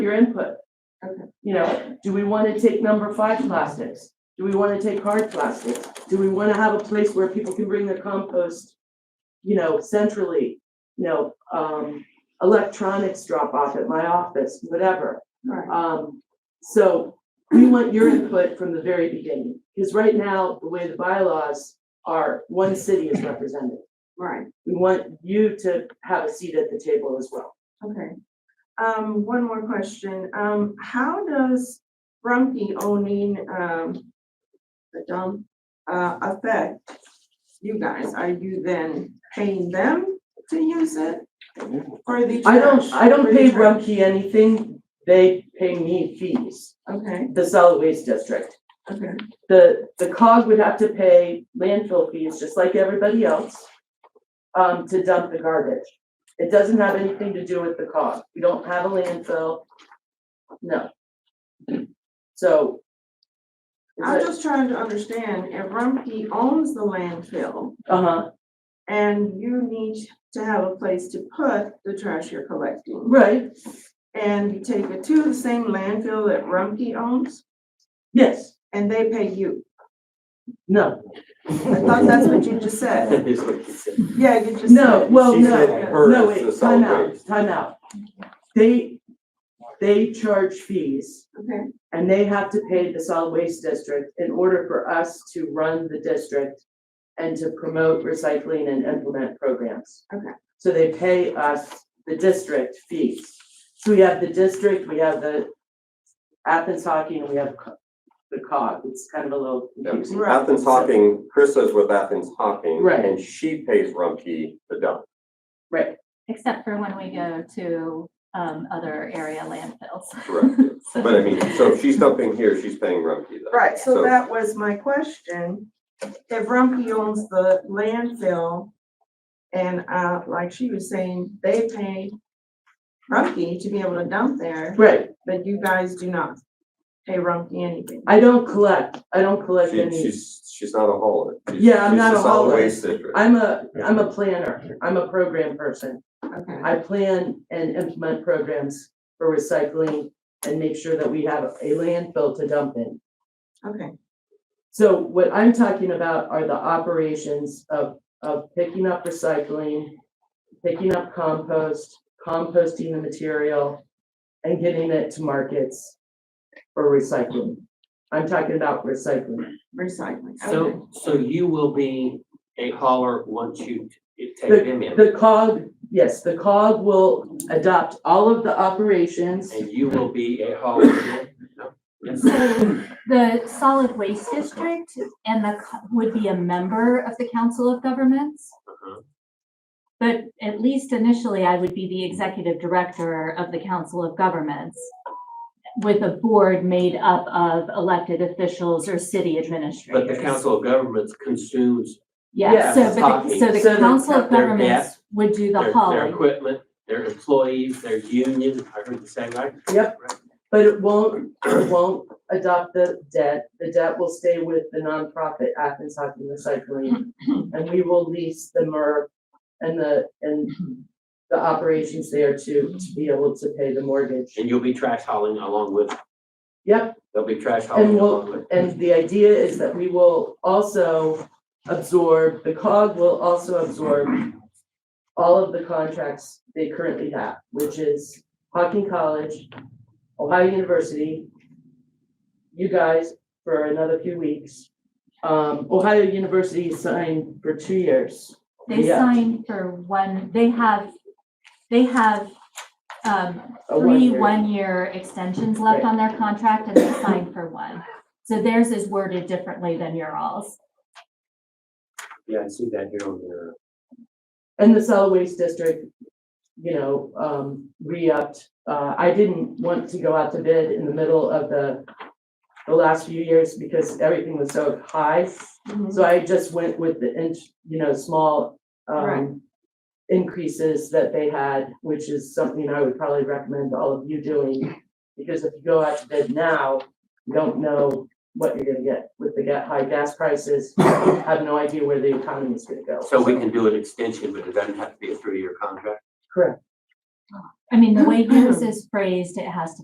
your input. Okay. You know, do we want to take number five plastics? Do we want to take hard plastics? Do we want to have a place where people can bring their compost? You know, centrally, you know, um, electronics drop off at my office, whatever. Right. Um, so we want your input from the very beginning, because right now, the way the bylaws are, one city is represented. Right, We want you to have a seat at the table as well. okay. Um, one more question. Um, how does Rumpke owning, um, the dump, uh, affect you guys? Are you then paying them to use it? Or the I don't, trash? I don't For the pay trash? Rumpke anything, they pay me fees, Okay, the solid waste district. okay, The, the cog would have to pay landfill fees, just like everybody else, um, to dump the garbage. It doesn't have anything to do with the cog, we don't have a landfill, no. So. is I'm it- just trying to understand, if Rumpke owns the landfill Uh-huh, and you need to have a place to put the trash you're collecting, right, and you take it to the same landfill that Rumpke owns, yes, and they pay you. no, I thought that's what you just said. Yeah, you just said. no, well, She said no, her no, is the wait, time solid out, waste. time out. They, they charge fees Okay, and they have to pay the solid waste district in order for us to run the district and to promote recycling and implement programs. Okay. So they pay us the district fees. So we have the district, we have the Athens Hockey, and we have co- the cog. It's kind of a little confusing. right, Athens Hocking, Chris is with Athens Hocking. Right. And she pays Rumpke the dump. Except for when we go to um other area landfills. Correct. But I mean, so if she's dumping here, she's paying Rumpke though. right, so that was my question. If Rumpke owns the landfill, and uh, like she was saying, they pay Rumpke to be able to dump there, Right, but you guys do not pay Rumpke anything. I don't collect, I don't collect She, any, she's, she's not a hauler. She's- Yeah, I'm she's not the a solid hauler. waste district. I'm a, I'm a planner, I'm a program person. Okay, I plan and implement programs for recycling and make sure that we have a landfill to dump in. okay, So what I'm talking about are the operations of, of picking up recycling, picking up compost, composting the material, and getting it to markets for recycling. I'm talking about recycling. recycling, okay. So, so you will be a hauler once you t- The- take them in, The cog, yes, the cog will adopt all of the operations. and you will be a hauler again? No? Yes. So the solid waste district and the, co- would be a member of the council of governments. Uh-huh. But at least initially, I would be the executive director of the council of governments with a board made up of elected officials or city But administrators. the council of governments consumes Yeah, Yes. so, but, the- Yes. so the So the- council of their governments debt, would do the their, their hauling. equipment, their employees, their union, I heard you saying right? But it won't, it won't adopt the debt. The debt will stay with the nonprofit Athens Hockey Recycling. And we will lease the MERV and the, and the operations there to, to be able to pay the mortgage. And you'll be trash hauling along with, Yep, they'll be trash hauling And we'll- along with. and the idea is that we will also absorb, the cog will also absorb all of the contracts they currently have, which is Hocking College, Ohio University, you guys for another few weeks. Um, Ohio University signed for two years. They Yeah. sign for one, they have, they have um, a three one-year. one-year extensions left Right. on their contract and they sign for one. So theirs is worded differently than your alls. Yeah, I see that here on the, And the solid waste district, you know, um, re-upped. Uh, I didn't want to go out to bid in the middle of the, the last few years because everything was so high. Mhm. So I just went with the inch, you know, small, Right. um, increases that they had, which is something I would probably recommend all of you doing. Because if you go out to bid now, you don't know what you're gonna get with the ga- high gas prices. You Have no idea where the economy is gonna go. so we can do an extension, but it doesn't have to be a three-year contract? Correct. I mean, the way yours is phrased, it has to